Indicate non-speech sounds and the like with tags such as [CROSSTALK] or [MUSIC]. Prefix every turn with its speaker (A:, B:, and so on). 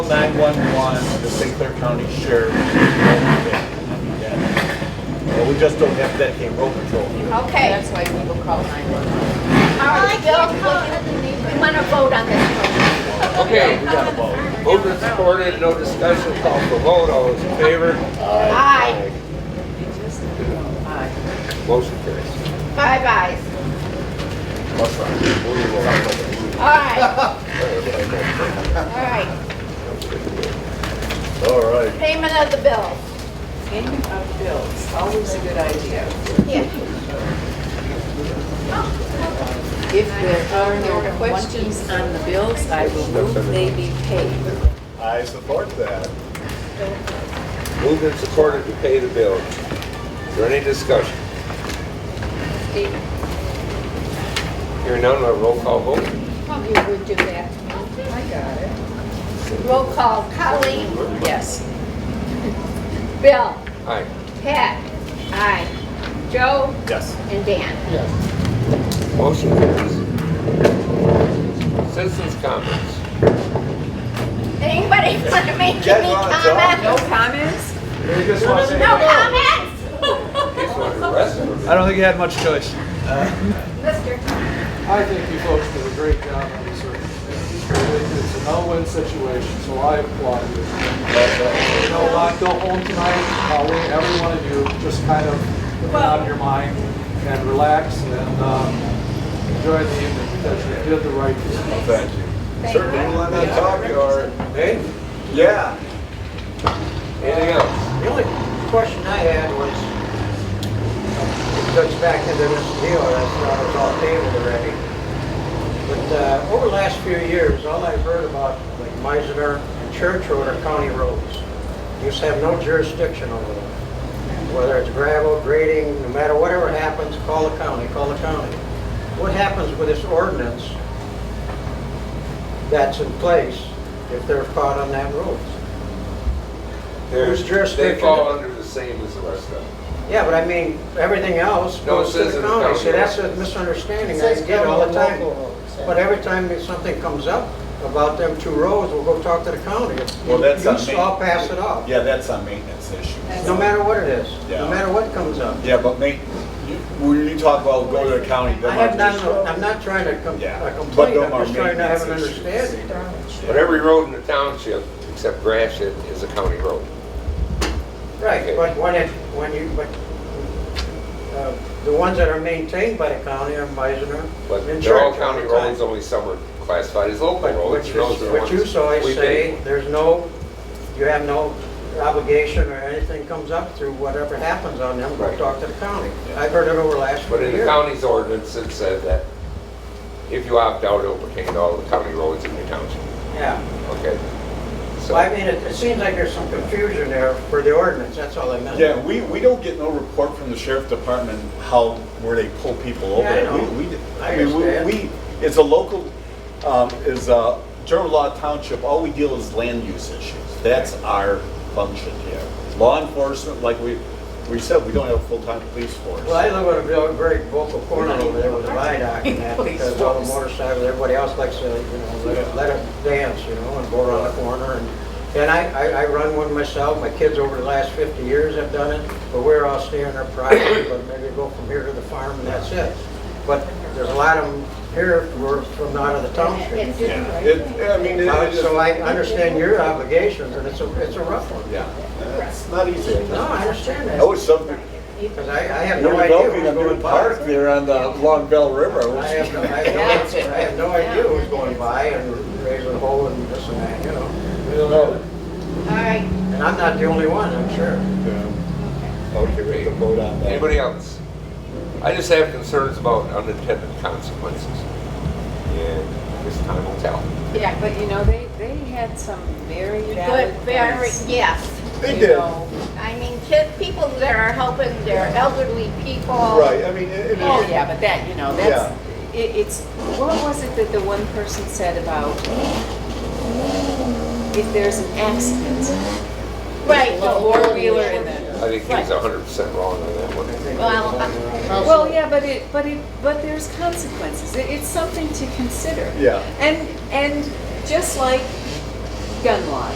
A: 911, the St. Clair County Sheriff. Well, we just don't have dedicated road patrol here.
B: Okay,
C: That's why people call 911.
B: all right, Bill, we want to vote on this.
D: Okay,
A: We got a vote.
D: moved and supported, no discussion, call for vote, all those in favor,
B: Aye,
D: motion carries.
B: five ayes.
A: Must not be. We will not vote.
B: All
C: [LAUGHS]
B: right. All right,
A: All right.
B: payment of the bills.
C: Payment of bills, always a good idea.
B: Yeah.
C: If there are no questions on the bills, I will move they be paid.
A: I support that.
D: Moved and supported to pay the bill. Is there any discussion? Hearing none, a roll call vote.
B: Probably would do that. Roll call, Colleen,
C: Yes.
B: Bill,
D: Aye.
B: Pat, aye, Joe,
A: Yes.
B: and Dan.
D: Motion carries. Citizens' comments.
B: Anybody [LAUGHS] want to make
A: Get
B: any
A: on, Joe.
C: No
B: comments?
C: comments?
A: We just want to say-
B: No comments? [LAUGHS]
D: Just want to rest them.
E: I don't think he had much choice.
B: Mister,
F: I think you folks did a great job on this. one. It's a no-win situation, so I applaud you. You know what, go home tonight, uh, we, every one of you, just kind of put it out of your mind and relax and um, enjoy the evening because you did the right thing.
A: Thank you.
B: Thank
A: Certainly,
B: you.
A: we'll let that talk, you are.
D: Hey,
A: Yeah.
D: anything else?
G: The only question I had was, it goes back to the deal, that's why it's all tabled already. But uh, over the last few years, all I've heard about, like Meisner and Church Road are county roads. You just have no jurisdiction over them. Whether it's gravel, grading, no matter whatever happens, call the county, call the county. What happens with this ordinance that's in place if they're caught on that road?
D: There's
G: Whose jurisdiction?
D: They fall under the same as the rest of them.
G: Yeah, but I mean, everything else
D: No, it
G: goes to
D: says
G: the
D: in the
G: county,
D: county.
G: so that's a misunderstanding I get all the time. But every time that something comes up about them two roads, we'll go talk to the county.
A: Well, that's on
G: You
A: me.
G: all pass it off,
A: Yeah, that's a maintenance issue.
G: no matter what it is,
A: Yeah.
G: no matter what comes up.
A: Yeah, but ma, you- when you talk about go to the county,
G: I
A: they
G: have
A: might
G: not,
A: just.
G: I'm not trying to com-
A: Yeah,
G: uh,
A: but
G: complain,
A: them
G: I'm
A: are
G: just trying to have an
A: maintenance issues.
G: understanding.
D: But every road in the township, except Gratiot, is a county road.
G: Right, but when it, when you, but, uh, the ones that are maintained by the county are Meisner.
D: But
G: and
D: they're all
G: Churchill
D: county
G: all the time.
D: roads, only some are classified as local
G: But
D: roads.
G: what
D: and
G: you,
D: those are the
G: what you
D: ones
G: saw, I
D: we
G: say,
D: pay.
G: there's no, you have no obligation or anything comes up through whatever happens on them, go
D: Right.
G: talk to the county. I've heard it over the last few
D: But in the
G: years.
D: county's ordinance, it said that if you opt out, it'll pertain to all the county roads in your township,
G: Yeah,
D: okay?
G: so I
D: So,
G: mean, it, it seems like there's some confusion there for the ordinance, that's all I meant.
A: Yeah, we, we don't get no report from the sheriff department how, where they pull people over.
G: Yeah, I know.
A: We- we-
G: I
A: mean, we-
G: understand.
A: We, it's a local, um, is a general law township, all we deal is land use issues. That's our function here. Law enforcement, like we, we said, we don't have a full-time police force.
G: Well, I live in a very- very vocal corner over there with a viaduct and that,
C: Please,
G: because all the
C: folks.
G: motorcycles, everybody else likes to, you know, let it, let it dance, you know, and go around the corner and, and I, I, I run one myself, my kids over the last fifty years have done it, but we're all staying our private, but maybe go from here to the farm and that's it. But there's a lot of them here who are from out of the township.
B: It's-
A: Yeah, it, I mean, it
G: Uh,
A: it is,
G: So I understand your obligations and it's a, it's a rough one.
A: yeah, it's not easy.
G: No, I understand
A: I
G: that,
A: wish something,
G: because I, I have
A: You're
G: no idea
A: developing a
G: who's
A: new
G: going by.
A: park there on the Long Bell River.
G: I have, no- I have no, I have no idea who's going by and raising a hole and this and that, you know.
A: I don't know.
B: all right,
G: And I'm not the only one, I'm sure.
D: okay,
A: Take a
D: wait.
A: vote on that.
D: anybody else? I just have concerns about unintended consequences. And this time will tell.
C: Yeah, but you know, they, they had some very
B: good,
C: valid
B: very,
C: points.
B: yes.
A: They
C: you
A: did.
C: know.
B: I mean, kids, people that are helping their elderly people.
A: Right, I mean, it, it
C: Oh,
A: is,
C: yeah, but that, you know, that's, it, it's, what was it that the one person said about if there's an accident,
B: Right.
C: a four-wheeler and the
D: I think he was hundred percent wrong on that one.
B: Well, uh,
C: Well, yeah, but it, but it, but there's consequences. It, it's something to consider.
A: Yeah.
C: And, and just like gun laws,